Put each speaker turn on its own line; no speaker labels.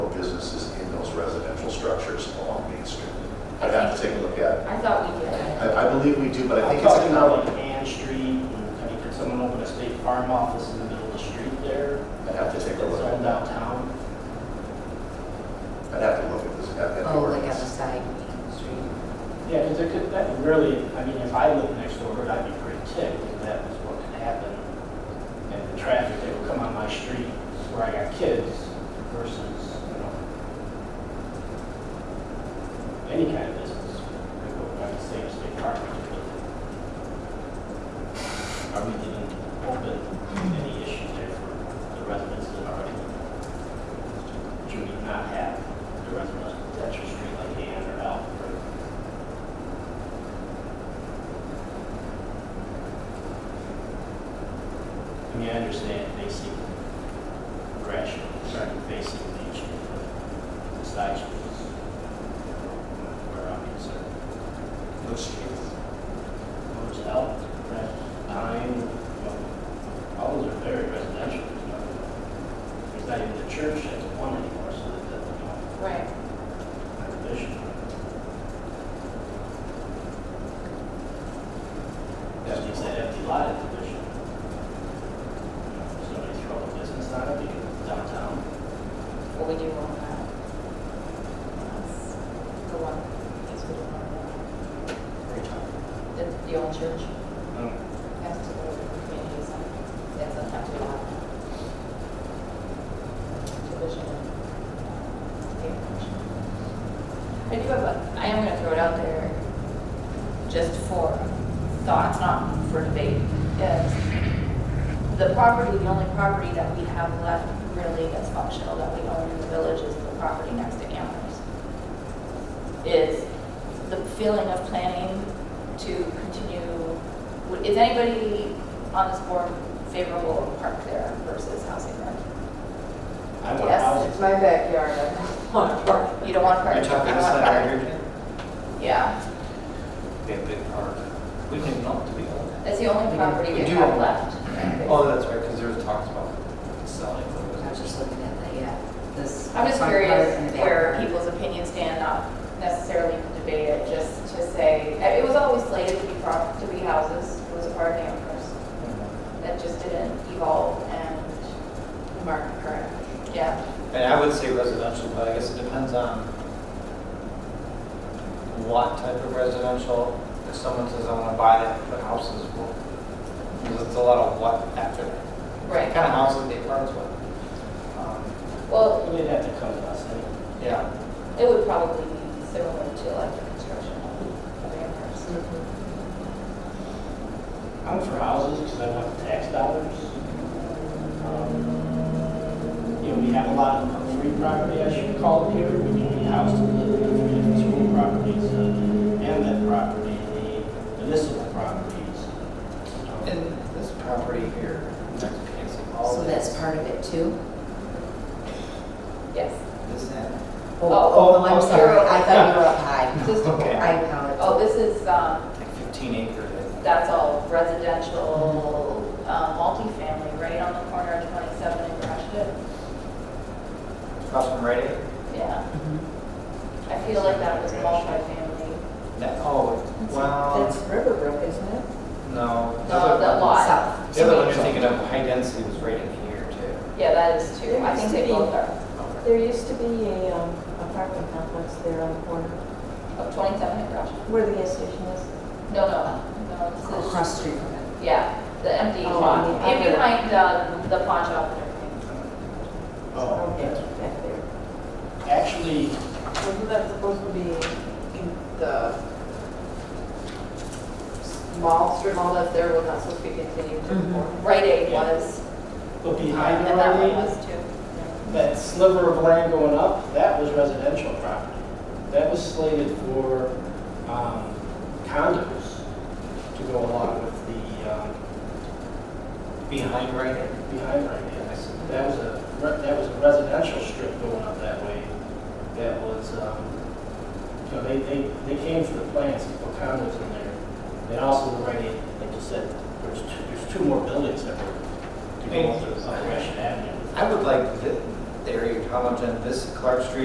structures along Main Street. I'd have to take a look at it.
I thought we did.
I, I believe we do, but I
I'm
think it's
talking
economic.
about like Ann Street, and I mean, could someone open a state farm office in the middle of the street there?
I'd have to take a
That's
look.
all downtown.
I'd have to look at this, at that
Oh, like on the
ordinance.
side, Main Street.
Yeah, because it could, that would really, I mean, if I lived next door, to it, I'd be pretty ticked if that was what could happen. And the traffic that would come on my street where I got kids versus, you know, any kind of business. Like, what I'm saying, state park. Are we even open any issues there for the residents that are already? Should we not have the residents that your street like Ann or Al or I mean, I understand basic rational, sorry, basic nature of the side streets. Where I'm concerned,
Which streets?
those out, that time, well, all those are very residential. you know. There's not even the church that's one anymore, so that, that, you know,
Right.
my vision. That means that empty lot at the vision. Somebody throw a business out of it downtown.
What we do on that. That's The one, that's what we
Every time.
do. The, the old church
Um,
has to go to the community center. That's on top of the lot. Division. I do have a, I am gonna throw it out there just for thought, not for debate, is the property, the only property that we have left really that's functional that we own in the village is the property next to Amherst. Is the feeling of planning to continue, would- is anybody on this board favorable of park there versus housing rent?
I want
Yes.
houses.
It's my backyard, I don't want to park.
You don't want to park?
You're
I
talking
don't
this
want to park.
out here?
Yeah,
They have big park. We didn't even know it to be owned.
that's the only property we
We do
have
own-
left.
Oh, that's right, because there was talks about selling.
I was just looking at that, yeah, this.
I'm just
front
curious
part and the back
where
part.
people's opinions stand, not necessarily debate it, just to say, I- it was always slated to be prop, to be houses, it was a part of Amherst. That just didn't evolve and mark current, yeah.
And I would say residential, but I guess it depends on what type of residential. If someone says, I want to buy that, put houses, well, because it's a lot of what after that. What kind of houses they purchase with. Um,
Well,
They'd have to come to us anyway.
Yeah,
it would probably be similar to like the construction of Amherst.
I'm for houses because I want the tax dollars. Um, You know, we have a lot of free property, I should call it here, we need a house to live in, we have school properties, uh, and that property, the municipal properties. Um,
and this property here, next piece of all
So that's part of it too?
Yes.
This end.
Oh,
oh,
oh, I'm
oh,
sorry,
you're-
I thought you were up high.
Just-
Okay.
I apologize.
Oh, this is, um,
Like 15 acre. that-
that's all residential, uh, multifamily, right on the corner of 27 and Gratiot.
Across from Rite Aid?
Yeah. I feel like that was multifamily.
That, oh,
That's
well,
Riverbrook, isn't it?
no.
No, Uh, that lot.
South.
The other one you're thinking of, high density was right in here too.
Yeah, that is true. I think they both are.
There used to be a um, apartment complex there on the corner,
Of 27 and Gratiot.
where the gas station is.
Oh, No, no, no. this is-
Across the street from it.
Yeah, the empty
Oh,
lot.
on the
And
other-
behind the, the pawn shop and everything.
Oh,
Okay,
yeah.
Back there.
Actually,
Wasn't that supposed to be in the mall, strip mall that's there, was not supposed to be continued to
Mm-hmm.
Mhm.
form?
Rite Aid
Yeah.
was,
but behind
and
the
that one
Rite Aid,
was too.
that sliver of land going up, that was residential property. That was slated for um, condos to go along with the, um,
Behind Rite Aid?
behind Rite Aid. I said, That was a, re- that was a residential strip going up that way. That was, um, you know, they, they, they came for the plans, and put condos in there. And also the Rite Aid, like you said, there's two, there's two more buildings that were to go up the- up Gresham uh, Avenue.
I would like the the area of College and this Clark Street